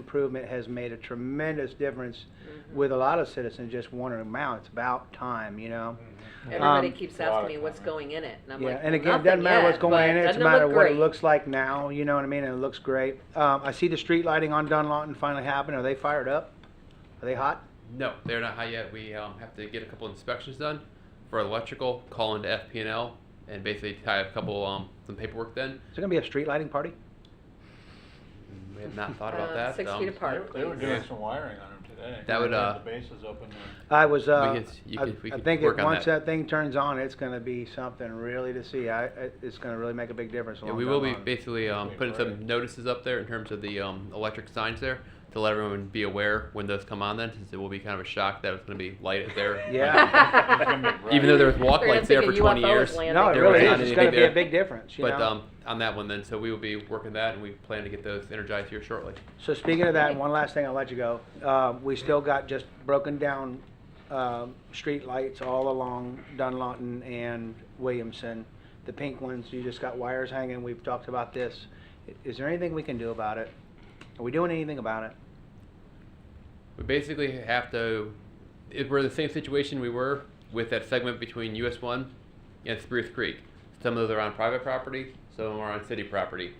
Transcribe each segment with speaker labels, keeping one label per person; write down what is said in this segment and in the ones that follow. Speaker 1: improvement has made a tremendous difference with a lot of citizens just wondering, wow, it's about time, you know?
Speaker 2: Mm-hmm.
Speaker 3: Everybody
Speaker 1: Um,
Speaker 3: keeps
Speaker 2: A lot
Speaker 3: asking
Speaker 2: of
Speaker 3: me what's
Speaker 2: comment.
Speaker 3: going in it, and I'm
Speaker 1: Yeah,
Speaker 3: like,
Speaker 1: and again, it doesn't
Speaker 3: "Nothing
Speaker 1: matter what's
Speaker 3: yet,
Speaker 1: going in,
Speaker 3: but
Speaker 1: it. it's a
Speaker 3: doesn't
Speaker 1: matter
Speaker 3: look
Speaker 1: what it
Speaker 3: great."
Speaker 1: looks like now, you know what I mean, and it looks great. Um, I see the street lighting on Dunlawton finally happened, are they fired up? Are they hot?
Speaker 4: No, they're not high yet. We um, have to get a couple inspections done for electrical, call into FP&L, and basically tie up a couple um, some paperwork. Then
Speaker 1: Is there gonna be a street lighting party?
Speaker 4: we have not thought
Speaker 3: Uh,
Speaker 4: about that.
Speaker 3: Six
Speaker 4: um,
Speaker 3: feet apart,
Speaker 2: They they were
Speaker 3: please.
Speaker 2: doing
Speaker 4: Yeah.
Speaker 2: some wiring on them today.
Speaker 4: That would,
Speaker 2: They had
Speaker 4: uh,
Speaker 2: The bases open there.
Speaker 1: I was, uh,
Speaker 4: We could- you
Speaker 1: I
Speaker 4: could- we
Speaker 1: I
Speaker 4: could
Speaker 1: think
Speaker 4: work
Speaker 1: it,
Speaker 4: on
Speaker 1: once
Speaker 4: that.
Speaker 1: that thing turns on, it's gonna be something really to see, I, it- it's gonna really make a big difference
Speaker 4: Yeah,
Speaker 1: along
Speaker 4: we will be
Speaker 1: Dunlawton.
Speaker 4: basically um,
Speaker 2: Wait,
Speaker 4: putting
Speaker 2: where?
Speaker 4: some notices up there in terms of the um, electric signs there to let everyone be aware when those come on. Then, since it will be kind of a shock that it's going to be lighted there.
Speaker 1: Yeah.
Speaker 2: It's gonna be bright.
Speaker 4: Even though there was walk
Speaker 3: They're gonna
Speaker 4: lights there for
Speaker 3: think a
Speaker 4: 20
Speaker 3: UFO is
Speaker 4: years.
Speaker 3: landing.
Speaker 1: No, it
Speaker 4: there
Speaker 1: really
Speaker 4: was not
Speaker 1: is, it's
Speaker 4: anything
Speaker 1: gonna be
Speaker 4: there.
Speaker 1: a big difference, you know?
Speaker 4: But um, on that one, then, so we will be working that, and we plan to get those energized here shortly.
Speaker 1: So speaking of that, one last thing, I'll let you go. Uh, we still got just broken down, um, street lights all along Dunlawton and Williamson. The pink ones, you just got wires hanging, we've talked about this. I- Is there anything we can do about it? Are we doing anything about it?
Speaker 4: We basically have to. It, we're in the same situation we were with that segment between US 1 and Spruce Creek. Some of those are on private property, some of them are on city property.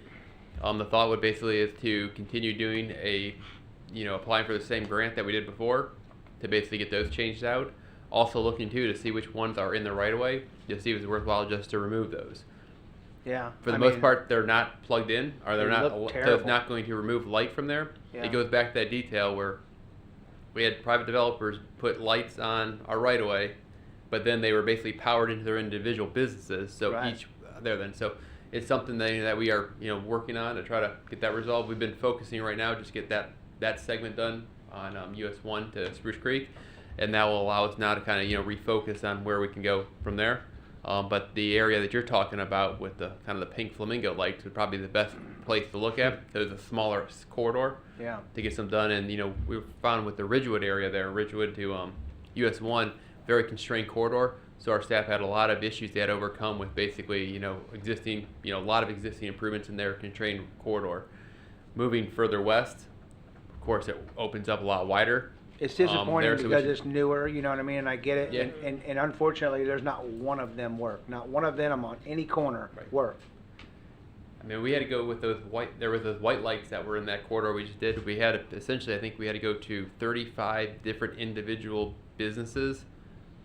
Speaker 4: Um, the thought would basically is to continue doing a, you know, applying for the same grant that we did before to basically get those changed out. Also looking too to see which ones are in the right of way to see if it's worthwhile just to remove those.
Speaker 1: Yeah.
Speaker 4: For the
Speaker 1: I
Speaker 4: most
Speaker 1: mean,
Speaker 4: part, they're not plugged in, or they're
Speaker 1: They
Speaker 4: not.
Speaker 1: look
Speaker 4: al- So
Speaker 1: terrible.
Speaker 4: it's not going to remove light from there.
Speaker 1: Yeah.
Speaker 4: It goes back to that detail where we had private developers put lights on our right of way, but then they were basically powered into their individual businesses. So
Speaker 1: Right.
Speaker 4: each there then. So it's something that, that we are you know working on to try to get that resolved. We've been focusing right now just get that that segment done on um, US one to Spruce Creek, and that will allow us now to kind of you know refocus on where we can go from there. Um, but the area that you're talking about with the kind of the pink flamingo lights would probably be the best place to look at. There's a smaller s- corridor
Speaker 1: Yeah,
Speaker 4: to get some done. And you know, we found with the Ridgewood area there, Ridgewood to um, US one, very constrained corridor. So our staff had a lot of issues they had to overcome with basically you know existing you know a lot of existing improvements in their constrained corridor. Moving further west, of course, it opens up a lot wider.
Speaker 1: it's
Speaker 4: Um,
Speaker 1: disappointing
Speaker 4: there's a-
Speaker 1: because it's newer, you know what I mean, and I get it.
Speaker 4: Yeah.
Speaker 1: And, and- and unfortunately, there's not one of them work, not one of them on any corner
Speaker 4: Right.
Speaker 1: work.
Speaker 4: I mean, we had to go with those white. There was those white lights that were in that corridor we just did. We had to- essentially, I think we had to go to 35 different individual businesses,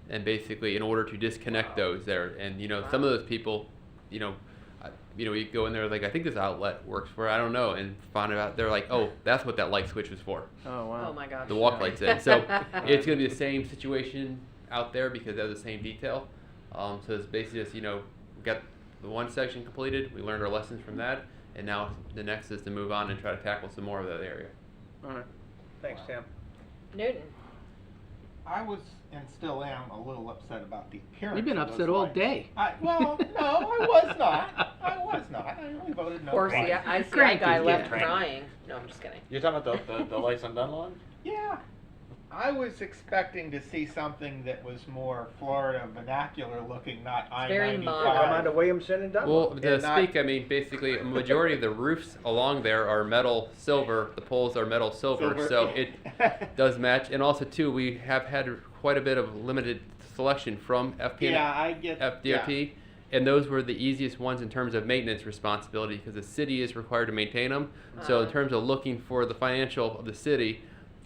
Speaker 4: and basically, in order to disconnect those there, and you know, some of those people, you know, I, you know, you go in there like I think this outlet works for. I don't know, and find out they're like, oh, that's what that light switch was for.
Speaker 1: Oh, wow.
Speaker 3: Oh, my gosh.
Speaker 4: The walk lights in. So it's going to be the same situation out there because they have the same detail. Um, so it's basically just, you know, we got the one section completed, we learned our lessons from that, and now the next is to move on and try to tackle some more of that area.
Speaker 1: All right, thanks, Tim.
Speaker 3: Newton,
Speaker 5: I was and still am a little upset about the appearance.
Speaker 6: You've been
Speaker 5: of
Speaker 6: upset
Speaker 5: those
Speaker 6: all
Speaker 5: lights.
Speaker 6: day.
Speaker 5: I, well, no, I was not. I was not. I only voted no.
Speaker 3: of course,
Speaker 5: twice.
Speaker 3: yeah, I see that
Speaker 6: Cranky,
Speaker 3: guy
Speaker 6: yeah.
Speaker 3: left
Speaker 5: Cranky.
Speaker 3: crying. No, I'm just kidding.
Speaker 2: You're talking about the, the, the lights on Dunlop?
Speaker 5: Yeah. I was expecting to see something that was more Florida vernacular looking, not I
Speaker 3: very
Speaker 5: ninety
Speaker 3: modern.
Speaker 1: Come on
Speaker 3: Alright.
Speaker 1: to
Speaker 5: five.
Speaker 1: Williamson and Dunlop.
Speaker 4: Well, to
Speaker 5: And not-
Speaker 4: speak, I mean, basically, a majority of the roofs along there are metal silver, the poles are metal silver, so it does match. And also, too, we have had quite a bit of limited selection from FPN
Speaker 5: yeah, I get yeah.
Speaker 4: FDRT, and those were the easiest ones in terms of maintenance responsibility because the city is required to maintain them. So in
Speaker 3: Uh-huh.
Speaker 4: terms of looking for the financial of the city,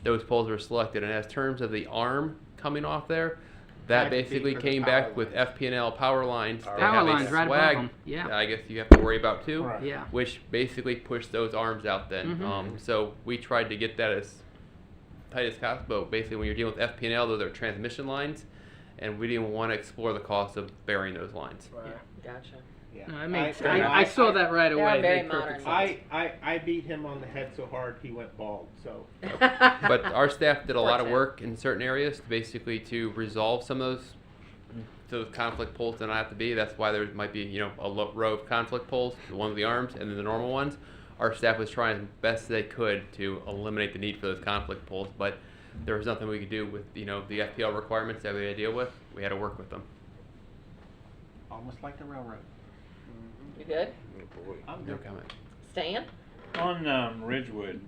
Speaker 4: those poles were selected. And as terms of the arm coming off there, that
Speaker 5: That'd be
Speaker 4: basically
Speaker 5: for the
Speaker 4: came
Speaker 5: power
Speaker 4: back with
Speaker 5: lines.
Speaker 4: FPNL power lines. They
Speaker 6: Power
Speaker 4: have a
Speaker 6: lines right
Speaker 4: swag
Speaker 6: above them.
Speaker 4: that
Speaker 6: Yeah.
Speaker 4: I guess you have to worry about too,
Speaker 5: Right.
Speaker 6: Yeah.
Speaker 4: which basically pushed those arms out then.
Speaker 6: Mhm.
Speaker 4: Um, so we tried to get that as tight as possible. But basically, when you're dealing with FPNL, those are transmission lines, and we didn't want to explore the cost of burying those lines.
Speaker 1: Right.
Speaker 3: Gotcha.
Speaker 5: Yeah.
Speaker 6: No, I, mean,
Speaker 5: I-
Speaker 6: I, I,
Speaker 5: I-
Speaker 6: saw that right
Speaker 3: They are
Speaker 6: away. It
Speaker 3: very
Speaker 6: made perfect
Speaker 3: modern.
Speaker 6: sense.
Speaker 5: I, I, I beat him on the head so hard he went bald. So
Speaker 4: but uh, our staff did a lot of
Speaker 3: Fortunate.
Speaker 4: work in certain areas to basically to resolve some of those those conflict poles that not have to be. That's why there might be you know a lo- row of conflict poles, the one with the arms and then the normal ones. Our staff was trying as best they could to eliminate the need for those conflict poles, but there was nothing we could do with you know the FPL requirements that we had to deal with. We had to work with them.
Speaker 5: almost like the railroad.
Speaker 3: You good?
Speaker 2: Oh, boy.
Speaker 5: I'm
Speaker 4: No
Speaker 5: good.
Speaker 4: comment.
Speaker 3: Stan?
Speaker 2: On um, Ridgewood,